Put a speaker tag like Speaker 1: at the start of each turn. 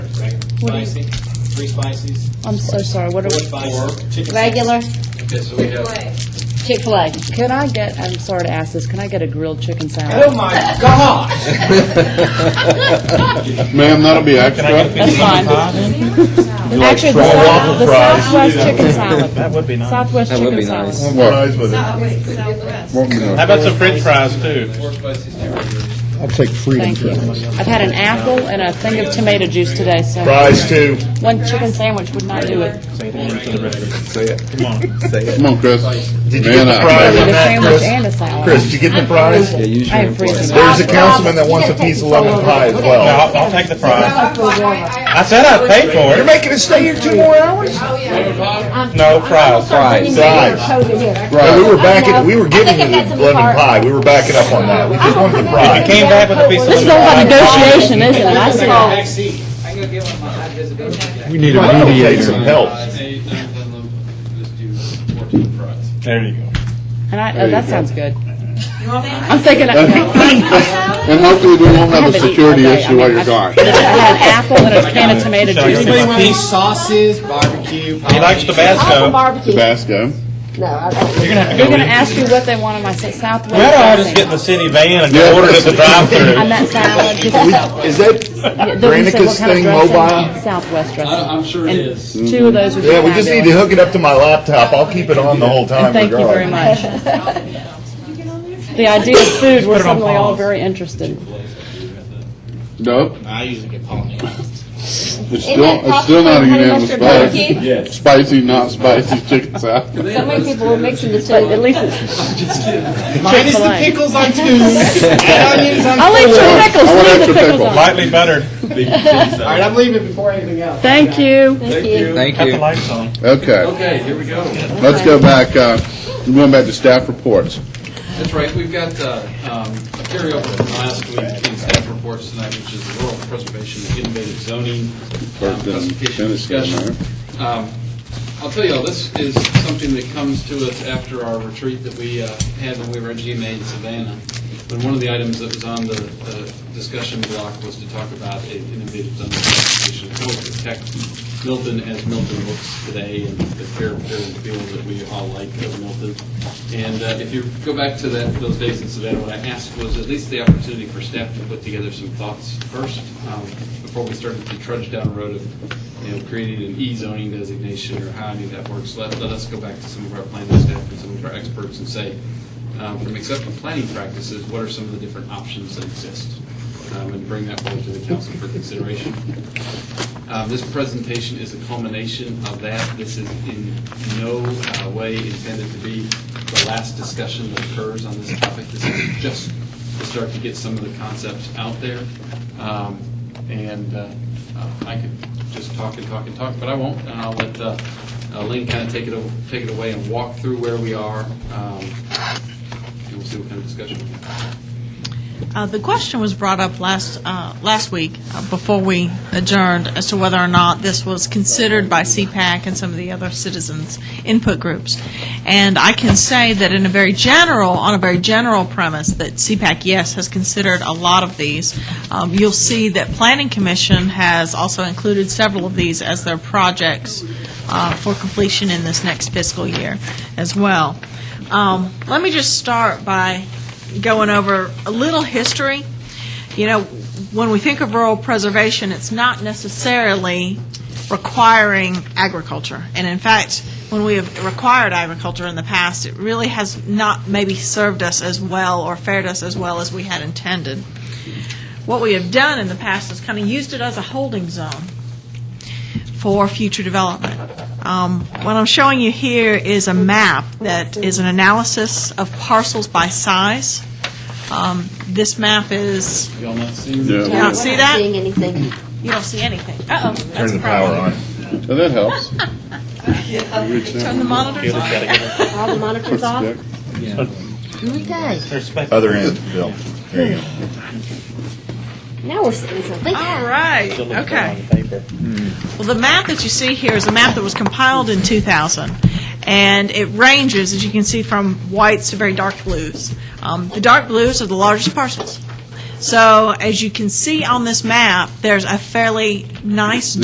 Speaker 1: What is-
Speaker 2: Spicy, three spices,
Speaker 1: I'm so sorry, what
Speaker 2: four
Speaker 1: are,
Speaker 2: spices, chicken.
Speaker 3: Regular
Speaker 4: Okay, so we have,
Speaker 3: Chick-fil-A.
Speaker 1: could I get, I'm sorry to ask this, can I get a grilled chicken salad?
Speaker 2: Oh my gosh!
Speaker 5: Ma'am, that'll be extra.
Speaker 1: That's fine.
Speaker 5: You like
Speaker 1: Actually, the
Speaker 5: fries?
Speaker 1: South- the
Speaker 5: Fries.
Speaker 1: Southwest chicken salad. That would be nice. Southwest
Speaker 6: That would
Speaker 1: chicken
Speaker 6: be nice.
Speaker 1: salad.
Speaker 5: What?
Speaker 7: So, wait, Southwest.
Speaker 5: What,
Speaker 8: How
Speaker 5: no.
Speaker 8: about some french fries too?
Speaker 4: four spices, two regular.
Speaker 9: I'll take freedom.
Speaker 1: Thank you. I've had an apple and a thing of tomato juice today, so.
Speaker 5: Fries too.
Speaker 1: One chicken sandwich would not do it.
Speaker 6: Say it.
Speaker 8: Come on.
Speaker 5: Come on, Chris.
Speaker 7: Did you
Speaker 5: Man,
Speaker 7: get the
Speaker 5: I-
Speaker 7: fries
Speaker 1: Did
Speaker 7: on that,
Speaker 1: a sandwich
Speaker 7: Chris?
Speaker 1: and a salad.
Speaker 7: Chris, did you get the ffries?
Speaker 6: Yeah, use your
Speaker 1: I am
Speaker 6: employees.
Speaker 1: freezing.
Speaker 7: There's a councilman that wants a piece of lemon pie as
Speaker 8: No,
Speaker 7: well.
Speaker 8: Oh, I'll, I'll take the fries. I said I'd pay for
Speaker 7: You're
Speaker 8: it.
Speaker 7: making us stay here two more hours?
Speaker 8: No fries.
Speaker 6: Fries.
Speaker 7: Fries.
Speaker 5: Right.
Speaker 7: We were backing, we were giving you the lemon pie, we were backing up on that, we just wanted the
Speaker 8: If you
Speaker 7: fries.
Speaker 8: came back with a piece of
Speaker 1: This is all about negotiation, isn't it? I
Speaker 2: I
Speaker 1: saw.
Speaker 2: got a back seat.
Speaker 4: I can go get one of my high visibility jackets.
Speaker 9: We need a
Speaker 7: I'll take
Speaker 9: mediator.
Speaker 7: some help.
Speaker 4: Five, eight, nine, ten, eleven, just do fourteen fries.
Speaker 8: There you go.
Speaker 1: And I, oh, that sounds good. I'm thinking, I
Speaker 5: And hopefully we won't have a security issue while you're gone.
Speaker 1: had an apple and a can of tomato
Speaker 8: Show you
Speaker 1: juice.
Speaker 2: Anybody
Speaker 8: my
Speaker 2: want any
Speaker 8: piece.
Speaker 2: sauces, barbecue?
Speaker 8: He likes Tabasco.
Speaker 5: Tabasco.
Speaker 8: You're gonna have to
Speaker 1: They're
Speaker 8: go
Speaker 1: gonna
Speaker 8: eat.
Speaker 1: ask you what they want on my sa- Southwest.
Speaker 8: We're all just
Speaker 1: dressing.
Speaker 8: get in the city van and
Speaker 5: Yeah.
Speaker 8: order it at the
Speaker 1: On
Speaker 8: drive-through.
Speaker 1: that salad, just
Speaker 5: Is that,
Speaker 1: Yeah, the one that said,
Speaker 5: Granicus
Speaker 1: what kind of
Speaker 5: thing
Speaker 1: dressing?
Speaker 5: mobile?
Speaker 1: Southwest dressing.
Speaker 4: I- I'm sure it
Speaker 1: And
Speaker 4: is.
Speaker 1: Two of those would be
Speaker 7: Yeah, we just need to
Speaker 1: fabulous.
Speaker 7: hook it up to my laptop, I'll keep it on the whole time
Speaker 1: Thank you very
Speaker 7: regardless.
Speaker 1: much. The idea of food, we're suddenly all very interested.
Speaker 5: Nope.
Speaker 2: I usually get pollinators.
Speaker 5: It's still, it's still not a unanimous vote.
Speaker 4: Yes.
Speaker 5: Spicy, not spicy chicken salad.
Speaker 3: So many people were mixing the
Speaker 1: But at
Speaker 3: two.
Speaker 1: least it's,
Speaker 2: Minus the
Speaker 1: Chick-fil-A.
Speaker 2: pickles on twos and onions on
Speaker 1: I'll leave
Speaker 2: fours.
Speaker 1: your pickles,
Speaker 5: I want
Speaker 1: leave the
Speaker 5: extra
Speaker 1: pickles
Speaker 5: pickle.
Speaker 1: on.
Speaker 8: Lightly buttered.
Speaker 2: All right, I'm leaving before anything else.
Speaker 1: Thank you.
Speaker 3: Thank you.
Speaker 6: Thank
Speaker 8: Got the
Speaker 6: you.
Speaker 8: lights on.
Speaker 5: Okay,
Speaker 4: Okay, here we go.
Speaker 5: let's go back, uh, we're going back to staff reports.
Speaker 4: That's right, we've got uh, um, a carryover from last week in staff reports tonight, which is the rural preservation and innovative zoning um,
Speaker 5: First uh, and
Speaker 4: presentation
Speaker 5: finish that,
Speaker 4: discussion. Um, I'll tell you, all, this is something that comes to us after our retreat that we uh, had when we were at GMA in Savannah. But one of the items that was on the the discussion block was to talk about a innovative zoning presentation, to protect Milton as Milton looks today and the fair, fair feel that we all like of Milton. And uh, if you go back to that, those days in Savannah, what I asked was at least the opportunity for staff to put together some thoughts first, um, before we started to trudge down the road of, you know, creating an e-zoning designation or how any of that works. Let, let us go back to some of our planning staff and some of our experts and say, um, from accepted planning practices, what are some of the different options that exist? Um, And bring that forward to the council for consideration. Uh, This presentation is a culmination of that. This is in no uh, way intended to be the last discussion that occurs on this topic. This is just to start to get some of the concepts out there. Um, And uh, uh, I could just talk and talk and talk, but I won't. And I'll let uh, uh, Lynn kind of take it, o- take it away and walk through where we are. um, And we'll see what kind of discussion we have.
Speaker 10: Uh, The question was brought up last, uh, last week, uh, before we adjourned, as to whether or not this was considered by CPAC and some of the other citizens' input groups. And I can say that in a very general, on a very general premise, that CPAC, yes, has considered a lot of these. Um, You'll see that Planning Commission has also included several of these as their projects uh, for completion in this next fiscal year as well. Um, Let me just start by going over a little history. You know, when we think of rural preservation, it's not necessarily requiring agriculture. And in fact, when we have required agriculture in the past, it really has not maybe served us as well or fared us as well as we had intended. What we have done in the past is kind of used it as a holding zone for future development. Um, What I'm showing you here is a map that is an analysis of parcels by size. Um, This map is,
Speaker 4: Y'all not seeing?
Speaker 10: you
Speaker 5: Yeah,
Speaker 10: don't see that?
Speaker 3: Seeing anything.
Speaker 10: You don't see anything. Uh-oh.
Speaker 7: Turn the power on.
Speaker 5: so that helps.
Speaker 10: Turn the monitors on.
Speaker 3: All the monitors off. Oh my gosh.
Speaker 8: Respect.
Speaker 7: Other end, Bill. There you go.
Speaker 3: Now we're sitting something.
Speaker 10: All right, okay. Well, the map that you see here is a map that was compiled in 2000, and it ranges, as you can see, from whites to very dark blues. Um, The dark blues are the largest parcels. So as you can see on this map, there's a fairly nice